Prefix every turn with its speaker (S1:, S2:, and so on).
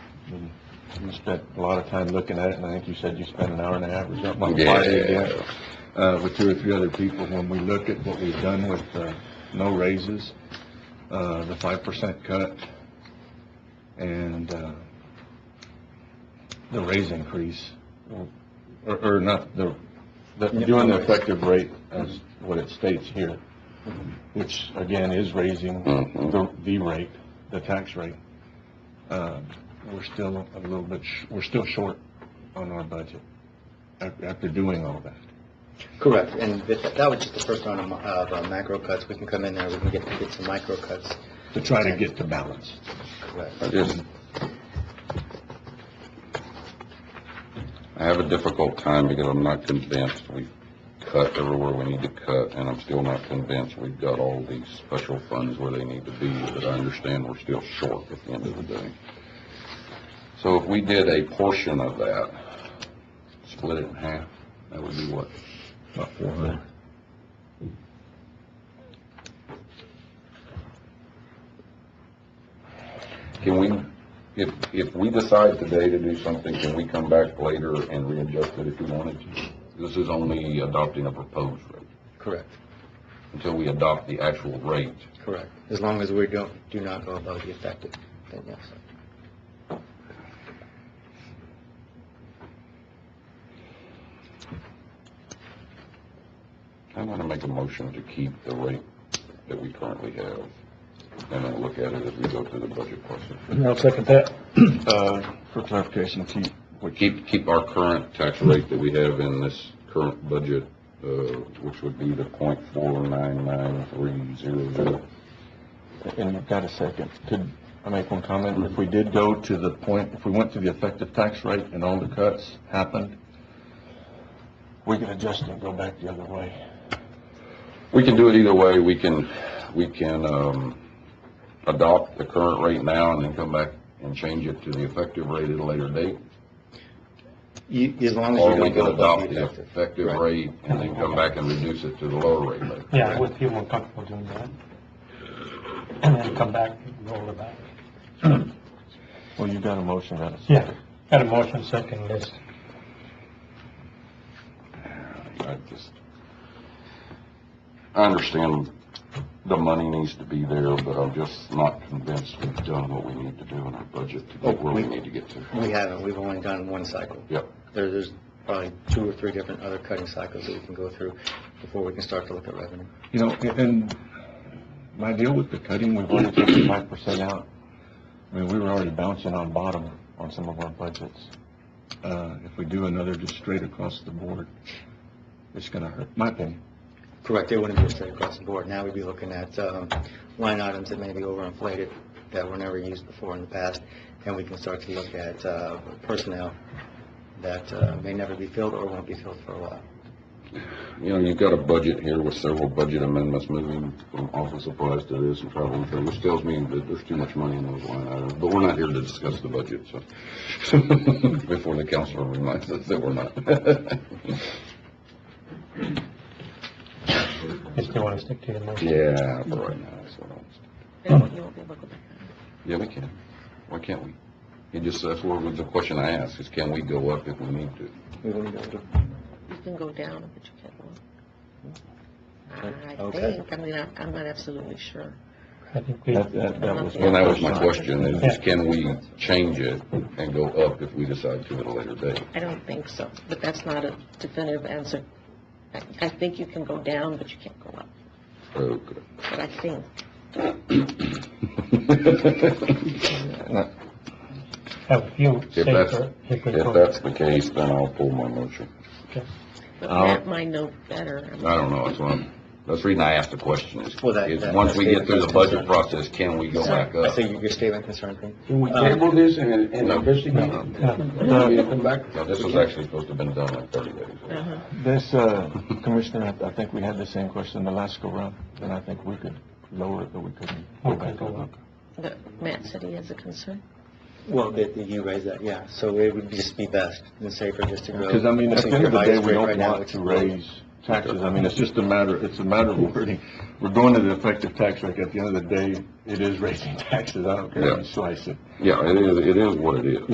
S1: you spent a lot of time looking at it, and I think you said you spent an hour and a half or something on
S2: Yeah.
S1: Friday again, uh, with two or three other people. When we look at what we've done with, uh, no raises, uh, the five percent cut, and, uh, the raise increase, or, or not, the, the- doing the effective rate as what it states here, which again is raising
S2: Mhm.
S1: the, the rate, the tax rate. Um, We're still a little bit, sh- we're still short on our budget af- after doing all that.
S3: Correct, and that that was just the first round of mo- of uh, macro cuts. We can come in there, we can get, get some micro cuts.
S1: To try to get to balance.
S3: Correct.
S2: I just, I have a difficult time because I'm not convinced we cut everywhere we need to cut, and I'm still not convinced we've got all these special funds where they need to be, but I understand we're still short at the end of the day. So if we did a portion of that, split it in half, that would be what?
S1: About four hundred.
S2: Can we, if, if we decide today to do something, can we come back later and readjust it if we wanted to? This is only adopting a proposed rate.
S3: Correct,
S2: until we adopt the actual rate.
S3: correct. As long as we don't, do not go above the effective, then yes.
S2: I'm gonna make a motion to keep the rate that we currently have, and then look at it as we go through the budget process.
S4: I'll second that.
S1: Uh, for clarification, Chief,
S2: We keep, keep our current tax rate that we have in this current budget, uh, which would be the point four nine nine three zero zero.
S1: and you've got a second, could I make one comment? If we did go to the point, if we went to the effective tax rate and all the cuts happened, we could adjust and go back the other way.
S2: We can do it either way, we can, we can, um, adopt the current rate now and then come back and change it to the effective rate at a later date.
S3: You, as long as
S2: Or
S3: you
S2: we
S3: don't
S2: can
S3: go above
S2: adopt
S3: the
S2: the
S3: effective.
S2: effective
S3: Right.
S2: rate and then come back and reduce it to the lower rate later.
S4: Yeah, with people are comfortable doing that. And then come back, roll it back.
S1: Well, you've got a motion, got a second.
S4: Yeah, got a motion second, yes.
S2: I just, I understand the money needs to be there, but I'm just not convinced we've done what we need to do in our budget to get where we need to get to.
S3: Oh, We haven't, we've only done one cycle.
S2: Yep.
S3: There, there's probably two or three different other cutting cycles that we can go through before we can start to look at revenue.
S1: You know, a- and my deal with the cutting, we've already taken five percent out. I mean, we were already bouncing on bottom on some of our budgets. Uh, if we do another just straight across the board, it's gonna hurt, my opinion.
S3: Correct, it wouldn't be straight across the board. Now we'd be looking at um, line items that may be overinflated that were never used before in the past, and we can start to look at uh, personnel that uh, may never be filled or won't be filled for a while.
S2: You know, you've got a budget here with several budget amendments moving from office supplies to this and travel and things, which tells me that there's too much money in those line items, but we're not here to discuss the budget, so. Before the council reminds us that we're not.
S4: You still want to stick to your motion?
S2: Yeah, for right now, that's what I was.
S5: You won't be able to go back.
S2: Yeah, we can. Why can't we? It just, that's what was the question I asked, is can we go up if we need to?
S3: We wouldn't be able to-
S5: You can go down, but you can't go up. I
S3: Okay.
S5: think, I mean, I- I'm not absolutely sure.
S4: I think we,
S1: That, that, that was.
S2: Well, that was my question, is just can we change it and go up if we decide to at a later date?
S5: I don't think so, but that's not a definitive answer. I I think you can go down, but you can't go up,
S2: Okay.
S5: but I think.
S4: have a few
S2: If that's,
S4: safer. if we
S2: if
S4: go-
S2: that's the case, then I'll pull my motion.
S5: But
S1: I'll-
S5: Matt might know better. I mean,
S2: I don't know, that's what I'm, that's the reason I asked the question, is,
S3: Well, that-
S2: is
S3: that-
S2: once we get through the budget
S3: that's-
S2: process, can we go back
S3: I
S2: up?
S3: see your statement concerns me.
S6: Can we table this and, and investigate?
S4: No.
S6: We'll come back.
S2: No, this was actually supposed to have been done like thirty days ago.
S5: uh-huh.
S1: This, uh, Commissioner, I, I think we had the same question the last go round, and I think we could lower it, but we couldn't go
S4: We could
S1: back
S4: go
S1: over.
S4: up.
S5: But Matt said he has a concern.
S3: Well, that that you raised that, yeah, so it would just be best and safer just to go.
S1: Because I mean, at the
S3: Since
S1: end of the
S3: your
S1: day,
S3: highest
S1: we
S3: rate
S1: don't
S3: right now
S1: want
S3: is-
S1: to raise taxes. I mean, it's just a matter, it's a matter of wording. We're going to the effective tax rate. At the end of the day, it is raising taxes. I don't care how you slice it.
S2: Yeah, it is, it is what it is.